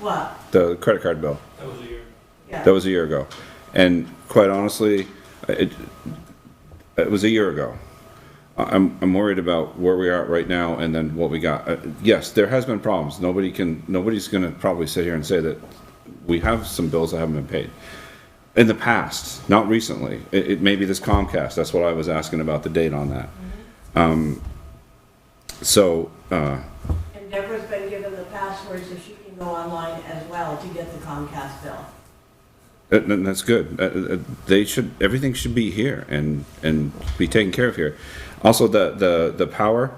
What? the credit card bill. That was a year. Yeah. That was a year ago. And quite honestly, it, it was a year ago. I- I'm, I'm worried about where we are at right now and then what we got. Uh, Yes, there has been problems. Nobody can, nobody's gonna probably sit here and say that we have some bills that haven't been paid. In the past, not recently. It, it may be this Comcast. That's what I was asking about the date on that. Um, So, uh, And Deborah's been given the password so she can go online as well to get the Comcast bill. And and that's good. Uh, uh, They should, everything should be here and, and be taken care of here. Also, the, the, the power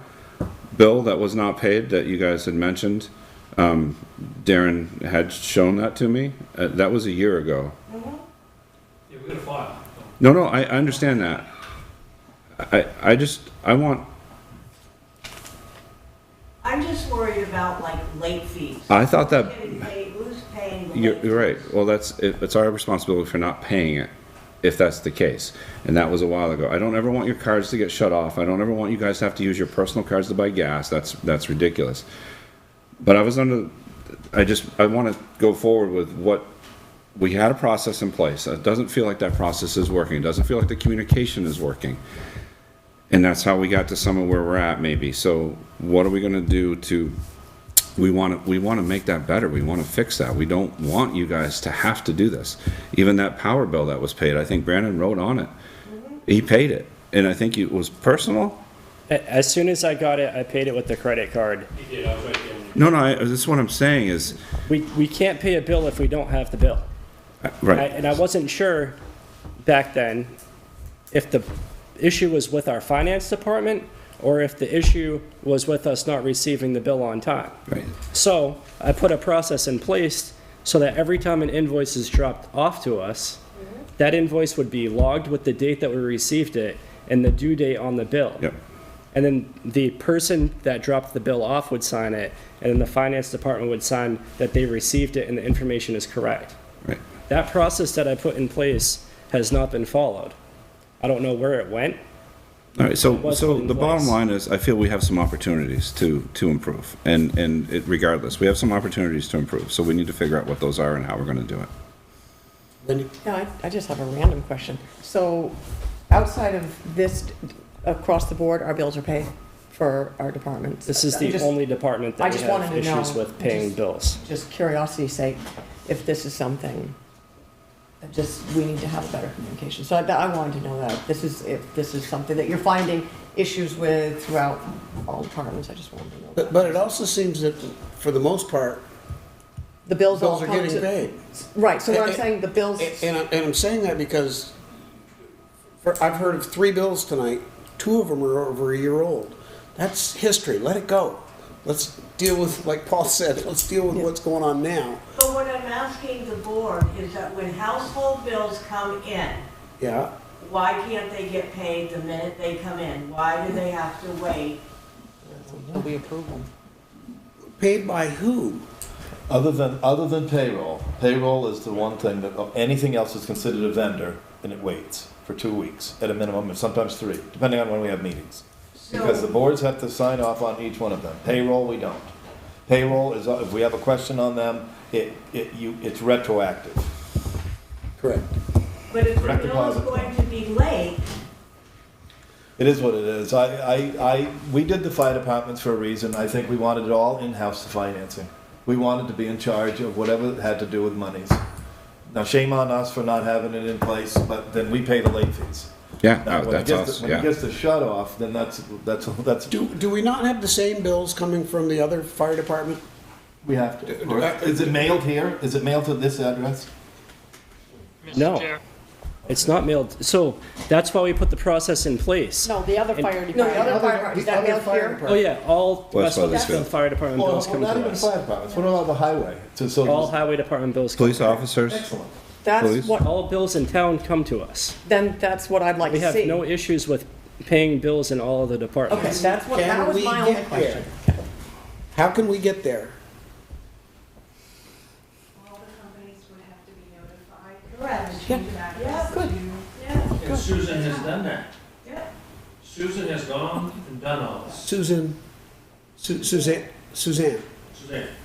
bill that was not paid that you guys had mentioned, um, Darren had shown that to me. Uh, that was a year ago. Yeah, we got a file. No, no, I, I understand that. I, I just, I want, I'm just worried about like late fees. I thought that, Getting paid, who's paying the Uh, you're, late? you're right. Well, that's, it- it's our responsibility for not paying it, if that's the case. And that was a while ago. I don't ever want your cards to get shut off. I don't ever want you guys to have to use your personal cards to buy gas. That's, that's ridiculous. But I was under, I just, I want to go forward with what, we had a process in place. It doesn't feel like that process is working. It doesn't feel like the communication is working. And that's how we got to some of where we're at maybe. So what are we going to do to, we want to, we want to make that better. We want to fix that. We don't want you guys to have to do this. Even that power bill that was paid, I think Brandon wrote on it. He paid it. And I think it was personal. A- As soon as I got it, I paid it with the credit card. He did, I was right there. when No, no, I, this is what I'm saying is, We, we can't pay a bill if we don't have the bill. I- right. And I wasn't sure back then if the issue was with our finance department or if the issue was with us not receiving the bill on time. Right. So I put a process in place so that every time an invoice is dropped off to us, that invoice would be logged with the date that we received it and the due date on the bill. Yep. And then the person that dropped the bill off would sign it, and then the finance department would sign that they received it and the information is correct. Right. That process that I put in place has not been followed. I don't know where it went. All right, so, what's so in the bottom place. line is, I feel we have some opportunities to, to improve, and, and it- regardless, we have some opportunities to improve, so we need to figure out what those are and how we're gonna do it. Lindy? No, I, I just have a random question. So outside of this, across the board, our bills are paid for our departments? This is I'm the just- only department I that we just wanted have to issues know. with paying Just- bills. Just curiosity's sake, if this is something, that just, we need to have better communication. So I, I wanted to know that, this is, if this is something that you're finding issues with throughout all departments, I just wanted to know. But, that. but it also seems that, for the most part, The bills all bills are come getting to- paid. Right, so what I'm And- saying, the bills, A- And, I- and I'm saying that because for, I've heard of three bills tonight, two of them are over a year old. That's history, let it go. Let's deal with, like Paul said, let's deal with what's going on now. But what I'm asking the board is that when household bills come in, Yeah, why can't they get paid the minute they come in? Why do they have to wait? so we approve them. paid by who? Other than, other than payroll, payroll is the one thing that, anything else is considered a vendor, and it waits for two weeks at a minimum, and sometimes three, depending on when we have meetings. Because the So, boards have to sign off on each one of them. Payroll, we don't. Payroll is, if we have a question on them, it, it, you, it's retroactive. Correct. but if the direct bill is deposit. going to be late, It is what it is. I, I, I, we did the fire departments for a reason. I think we wanted it all in-house, the financing. We wanted to be in charge of whatever had to do with monies. Now shame on us for not having it in place, but then we pay the late fees. Yeah, Now, oh, when it that's gets us, to- When it yeah. gets to shut off, then that's, that's, that's, Do, do we not have the same bills coming from the other fire department? we have to. Is it mailed here? Is it mailed to this address? No. It's not mailed, so that's why we put the process in place. No, the other fire department. No, the other fire department. Is that The other mailed fire here? Oh, yeah, all West Westfield. Westfield Fire Department Well, bills come not to even us. fire departments. What about the highway? So- so- All highway department bills come Police to us. officers, Excellent. Please. That's what, All bills in town come to us. then that's what I'd like We to have see. no issues with paying bills in all of the Okay, departments. that's what, that Can was we my only get question. there? How can we get there? all the companies would have to be notified. Correct. Change of address. Yeah, good. yeah, And Susan has done that. yeah. Susan has gone and done all this. Susan, Su- Suzanne, Suzanne, Suzanne,